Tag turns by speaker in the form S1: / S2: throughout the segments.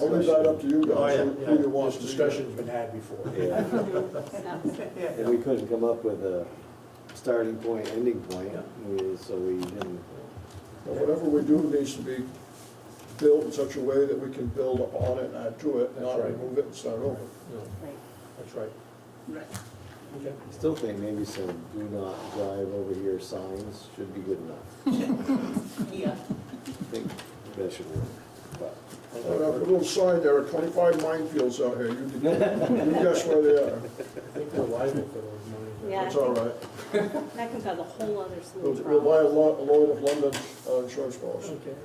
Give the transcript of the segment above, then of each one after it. S1: I leave that up to you
S2: Oh,
S1: guys,
S2: yeah,
S1: who- who you
S2: yeah,
S1: want.
S2: this discussion's been had before.
S3: Yeah,
S2: Yeah.
S3: and we couldn't come up with a starting point, ending point, we- so we didn't.
S1: But Whatever we do needs to be built in such a way that we can build upon it and add to it,
S2: That's
S1: not
S2: right.
S1: remove it and start over.
S2: No, That's right. Okay.
S3: Still think maybe some do not drive over here signs should be good enough.
S4: Yeah.
S3: I think that should work, but.
S1: And I put a little sign there, twenty-five minefields out here, you can, you guess where they are,
S2: I think we're liable for those monies.
S4: Yeah.
S1: it's all right.
S4: That comes out of a whole other slew
S1: We'll
S4: of
S1: we'll buy a
S4: problems.
S1: lot, a load of London uh, insurance policy.
S2: Okay.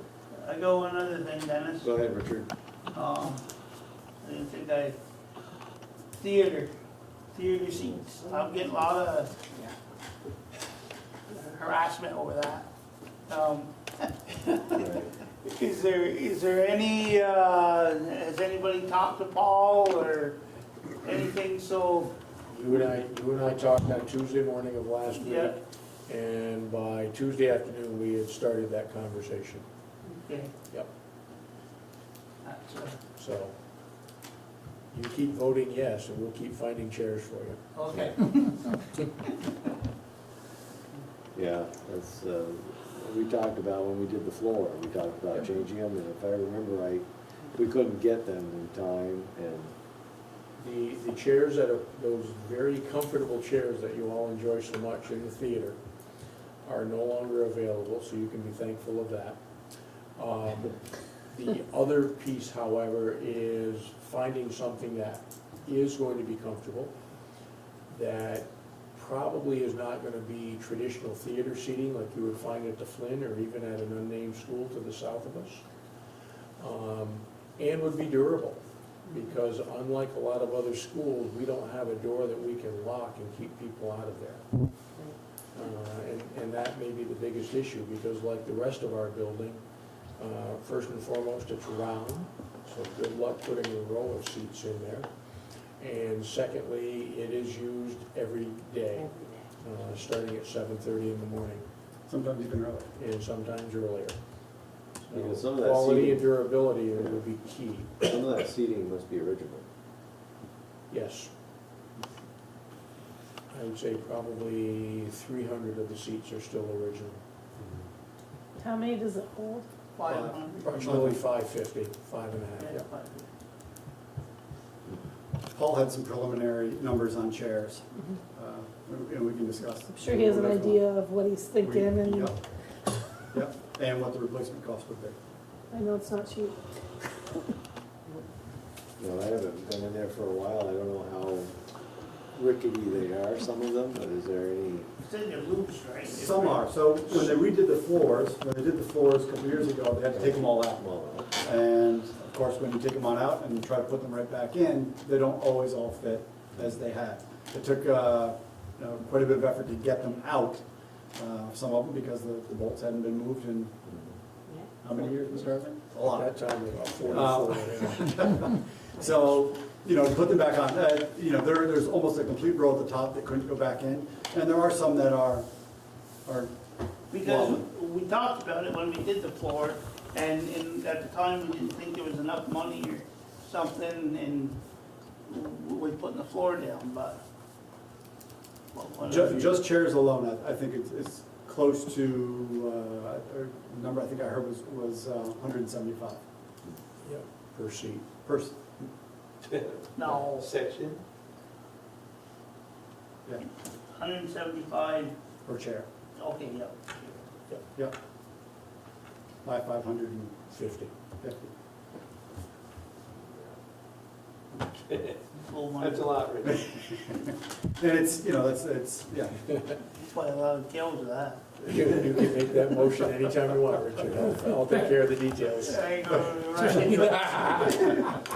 S5: I go one other thing, Dennis.
S3: Go ahead, Richard.
S5: Um, I didn't think I, theater, theater seats. I'm getting a lot of harassment over that. Um,
S3: Right.
S5: is there, is there any, uh, has anybody talked to Paul or anything so,
S2: You and I, you and I talked on Tuesday morning of last week.
S5: Yeah.
S2: And by Tuesday afternoon, we had started that conversation,
S5: okay,
S2: yep.
S5: that's, uh,
S2: So you keep voting yes, and we'll keep finding chairs for you.
S5: okay.
S3: Yeah, that's, uh, we talked about when we did the floor, we talked
S2: Yeah.
S3: about changing them, and if I remember right, we couldn't get them in time, and
S2: The, the chairs that are, those very comfortable chairs that you all enjoy so much in the theater are no longer available, so you can be thankful of that. Um, The other piece, however, is finding something that is going to be comfortable, that probably is not gonna be traditional theater seating like you would find at the Flynn or even at an unnamed school to the south of us. Um, And would be durable because unlike a lot of other schools, we don't have a door that we can lock and keep people out of there. Uh, And, and that may be the biggest issue, because like the rest of our building, uh, first and foremost, it's round, so good luck putting a row of seats in there. And secondly, it is used every day, uh, starting at seven-thirty in the morning,
S6: Sometimes even early.
S2: and sometimes earlier.
S3: Because
S2: So
S3: some of that
S2: Quality
S3: seating-
S2: and durability will be key,
S3: some of that seating must be original.
S2: yes. I would say probably three hundred of the seats are still original.
S7: How many does it hold?
S5: Five hundred.
S2: Approximately five fifty, five and a half,
S5: Yeah,
S2: yeah.
S5: five.
S6: Paul had some preliminary numbers on chairs, uh, and we can discuss.
S7: I'm sure he has an idea of what he's thinking, and
S6: Yep, Yep, and what the replacement cost would be.
S7: I know it's not cheap.
S3: No, I haven't been in there for a while, I don't know how rickety they are, some of them, but is there any,
S5: It's in your loops, right?
S6: Some are, so when they redid the floors, when they did the floors a couple years ago, they had to take them all out.
S3: well,
S6: And of course, when you take them on out and try to put them right back in, they don't always all fit as they had. It took, uh, you know, quite a bit of effort to get them out, uh, some of them because the the bolts hadn't been moved in, how many years, Mr. Irvin? A lot.
S2: At that time, about
S6: Uh.
S2: forty-four, yeah.
S6: So, you know, to put them back on, uh, you know, there, there's almost a complete row at the top that couldn't go back in. And there are some that are, are,
S5: Because we talked about it when we did the floor, and, and at the time, we didn't think there was enough money or something, and we putting the floor down, but. but
S6: ju-
S5: whatever.
S6: just chairs alone, I, I think it's, it's close to, uh, or the number I think I heard was, was uh, hundred and seventy-five
S2: Yeah, per seat.
S6: per,
S5: No,
S2: Section?
S6: yeah,
S5: hundred and seventy-five,
S6: per chair.
S5: okay, yeah.
S6: Yep. By five hundred and
S2: Fifty.
S6: fifty.
S5: Full money.
S2: lot, Rich.
S6: And it's, you know, that's, it's, yeah,
S5: That's why a lot of uh, kills of that.
S2: You you can make that motion anytime you want, Richard, I'll- I'll take care of the details.
S5: Right, right, right.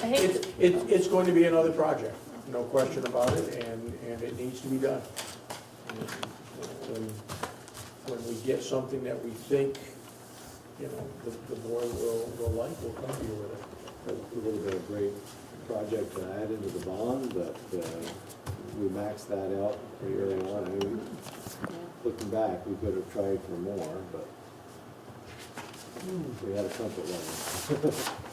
S7: I hate,
S2: It's, it's, it's going to be another project, no question about it, and, and it needs to be done. When, when we get something that we think, you know, the, the board will, will like, we'll come to you with it.
S3: a little bit of great project to add into the bond, but uh, we maxed that out pretty early on. I mean, looking back, we could have tried for more, but we had a comfort level.